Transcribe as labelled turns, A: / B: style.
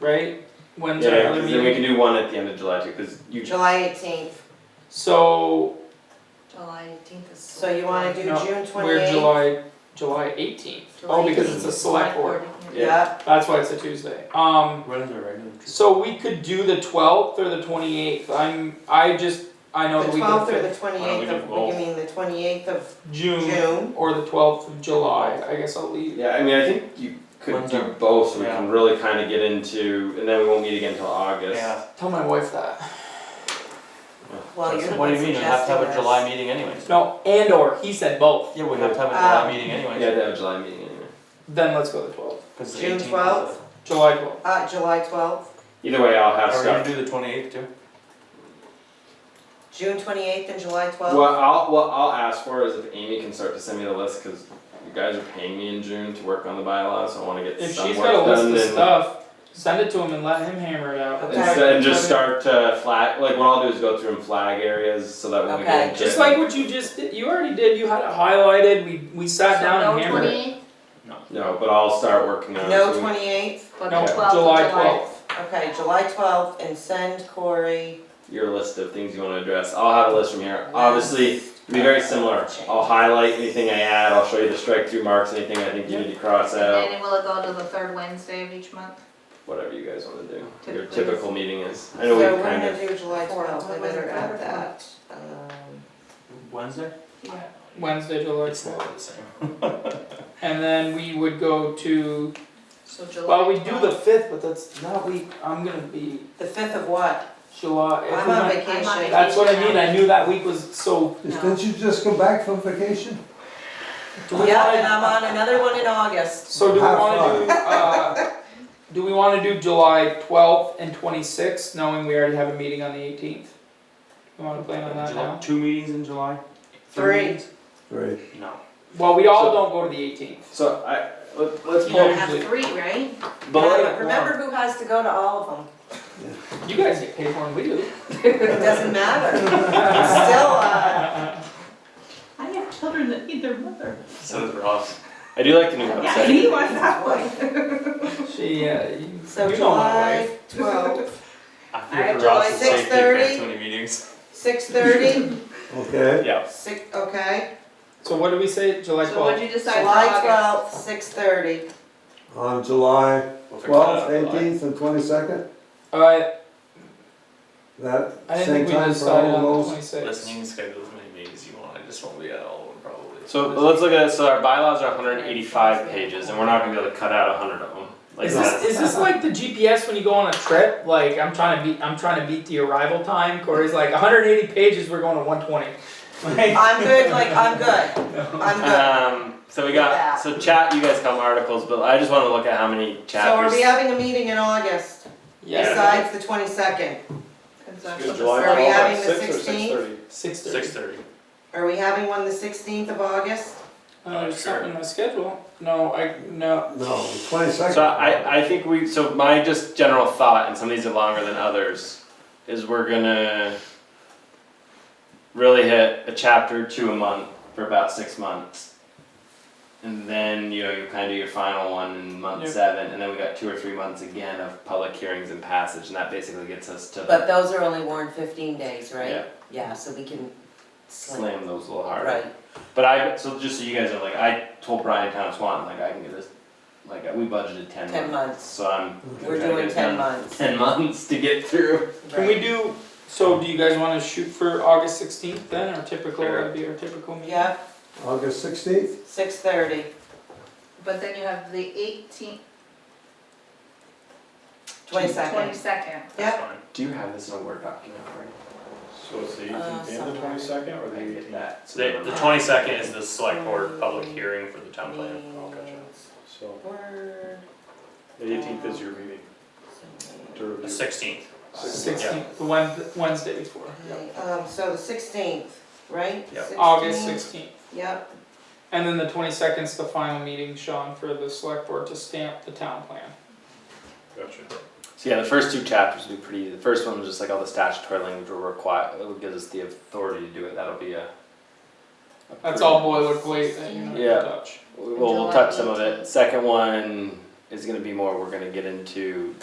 A: right? When's our
B: Yeah,
A: other
B: 'cause then we
A: meeting?
B: can do one at the end of July too, cause you,
C: July eighteenth,
A: So
D: July eighteenth is.
C: so you wanna do
A: No,
C: June twenty
A: we're July, July eighteenth. Oh, because it's a select board.
C: Yep,
A: That's why it's a Tuesday. Um,
B: When is it right now?
A: so we could do the twelfth or the twenty eighth. I'm, I just, I know
C: the
A: that we can
C: twelfth or
A: fit
C: the twenty
B: Why don't we
C: eighth
B: do
C: of,
B: both?
C: you mean the twenty eighth of
A: June
C: June?
A: or the twelfth of July. I guess I'll leave.
B: Yeah, I mean, I think you could
E: When's
B: do
E: our-
B: both, so we
E: yeah.
B: can really kinda get into, and then we won't meet again till August.
E: Yeah.
A: Tell my wife that.
C: Well, Oh, you're the
E: What do
C: one
E: you mean, you
C: suggesting
E: have to have a
C: this.
E: July meeting anyways?
A: No, and or he said both.
E: Yeah, we have to have a
C: Um,
E: July meeting
B: Yeah,
E: anyways.
B: they have a July meeting anyway.
A: Then let's go the twelfth,
E: 'cause the
C: June
E: 18th is the-
C: 12th?
A: July twelfth.
C: Uh, July twelfth,
B: Either way, I'll have
E: Are we gonna
B: stuff.
E: do the twenty-eighth too?
C: June twenty eighth and July twelfth?
B: What I'll, what I'll ask for is if Amy can start to send me the list, cause you guys are paying me in June to work on the bylaws, so I wanna get
A: If
B: some
A: she's
B: work
A: got a list
B: done
A: of
B: and-
A: stuff, send it to him and let him hammer it out.
C: Okay.
B: Instead, and just start to flag, like what I'll do is go through and flag areas so that when we
C: Okay.
B: get.
A: Just like what you just did, you already did, you had it highlighted, we, we sat down and hammered it.
B: No, but I'll start working on it.
C: No
B: so we-
C: twenty eighth,
D: but
A: No,
D: the twelfth of
A: July
D: July.
A: twelfth.
C: okay, July twelfth and send Corey.
B: Your list of things you wanna address, I'll have a list from here, obviously, it'll be very similar, I'll highlight anything I add, I'll show you the strike through marks, anything I think you need to cross
D: And
B: out.
D: then will it go to the third Wednesday of each month?
B: Whatever you guys wanna do, your
D: Typically.
B: typical meeting is, I know we've kind
C: So we're gonna do July
D: Four.
C: twelfth, I better add
D: Four.
C: that, um,
E: Wednesday?
D: Yeah.
A: Wednesday, July
E: It's not
A: twelfth.
E: the same.
A: And then we would go to,
D: So July.
A: well, we do the
D: 12th.
A: fifth, but that's not week, I'm gonna be
C: the fifth of what?
A: July. if
C: I'm
A: we
C: on
A: went-
C: vacation.
D: I'm on vacation.
A: That's what I mean, I knew that week was, so
D: No.
F: Didn't you just come back from vacation?
A: do we
C: Yeah, and
A: wanna,
C: I'm on another one in August.
A: so do we
F: Have
A: wanna
F: fun.
A: do, uh, do we wanna do July twelfth and twenty-sixth, knowing we already have a meeting on the eighteenth? You wanna plan on that
E: July-
A: now?
E: Two meetings in July?
C: Three.
E: meetings?
F: Great.
E: No.
A: Well, we all
B: So-
A: don't go to the eighteenth.
B: of, so I, let, let's
A: You
D: You don't
B: pull,
A: know-
D: have
A: Usually.
D: three, right?
B: but
C: Yeah,
B: let-
C: but Remember who has to go to all of them,
A: You guys get paid more than we do.
C: it doesn't matter, it's still, uh,
G: I have children that need their mother.
E: So does Ross.
B: I do like the new
G: Yeah,
B: website,
G: he was that way.
A: She, uh, you
C: so
A: you know my wife.
C: July twelfth,
E: I
C: Alright,
E: feel for Ross
C: July
E: is safety
C: 6:30.
E: for too many meetings.
C: six thirty,
F: Okay.
B: yeah,
C: six, okay,
A: So what did we say, July
D: So what'd
A: twelfth?
D: you decide for
C: July
D: August?
C: twelfth, six thirty.
F: On July
E: We'll figure that out
F: twelfth,
E: in July.
F: eighteenth, and twenty-second,
A: Uh,
F: that
A: I didn't
F: same
A: think we
F: time for all
A: decided
F: of
A: on the
F: those.
A: twenty-sixth.
E: Listen, you can schedule as many meetings you want, I just won't be at all of them probably.
B: so let's look at, so our bylaws are hundred and eighty-five pages, and we're not gonna be able to cut out hundred of them, like
A: Is
B: that.
A: this, is this like the GPS when you go on a trip? Like I'm trying to beat I'm trying to beat the arrival time. Corey's like 180 pages. We're going to 120. Like,
C: I'm good, like, I'm good, I'm good.
B: Um, so we got, so chat, you guys come articles, but I just wanna look at how many
C: So are
B: chapters.
C: we having a meeting in August,
A: yeah,
B: Yeah.
C: besides the twenty-second?
D: Cause that's
H: Is
D: what the
H: July
C: Are we
H: twelfth
C: having
H: at
C: the
H: six or six
C: 16th?
H: thirty?
A: six thirty.
E: Six thirty.
C: Are we having one the sixteenth of August?
A: Uh, there's
E: Sure.
A: something in my schedule. No, I no.
F: No, twenty-second.
B: So I, I think we, so my just general thought, and some of these are longer than others, is we're gonna really hit a chapter or two a month for about six months. And then, you know, you kinda do your final one in month
A: Yeah.
B: seven, and then we got two or three months again of public hearings and passage, and that basically gets us to
C: But those are only worn fifteen days, right?
B: Yeah.
C: Yeah, so we can slam,
B: slam those a little harder.
C: right,
B: But I, so just so you guys know, like, I told Brian Town Swan, like, I can get this, like, we budgeted ten months.
C: ten months,
B: So I'm.
C: we're
B: I'm trying to
C: doing
B: get
C: ten
B: done
C: months,
B: Ten months to get through.
A: Can we do? So do you guys want to shoot for August 16th then, or typical?
B: Sure.
A: That'd be our typical meeting.
C: Yeah,
F: August sixteenth,
C: six thirty,
D: But then you have the eighteenth,
C: twenty-second.
D: twenty-second.
C: Yep.
E: That's fine.
B: Do you have this in a Word document for
H: So it's the
C: Uh,
H: eighteenth and the
C: sometime.
H: twenty-second or the
B: me? I
H: eighteenth?
B: get that. So
E: The,
B: then
E: the
B: I'm-
E: twenty-second is the select board public hearing for the town Oh, plan.
H: So
C: Word.
H: the eighteenth is your meeting to
E: The
H: review.
E: sixteenth,
A: 16th, the Wed- Wednesday before.
C: Um, so the sixteenth, right?
E: Yep.
A: August
C: 16th.
A: 16th.
C: Yep,
A: And then the 22nd is the final meeting, Sean, for the select board to stamp the town plan.
H: Gotcha.
B: So yeah, the first two chapters will be pretty, the first one was just like all the statutory language will require, it'll give us the authority to do it, that'll be a. a
A: That's
B: pretty-
A: all boilerplate that you're not
B: Yeah.
A: gonna touch.
B: Well, we'll touch some of it. Second one is gonna be more, we're gonna get into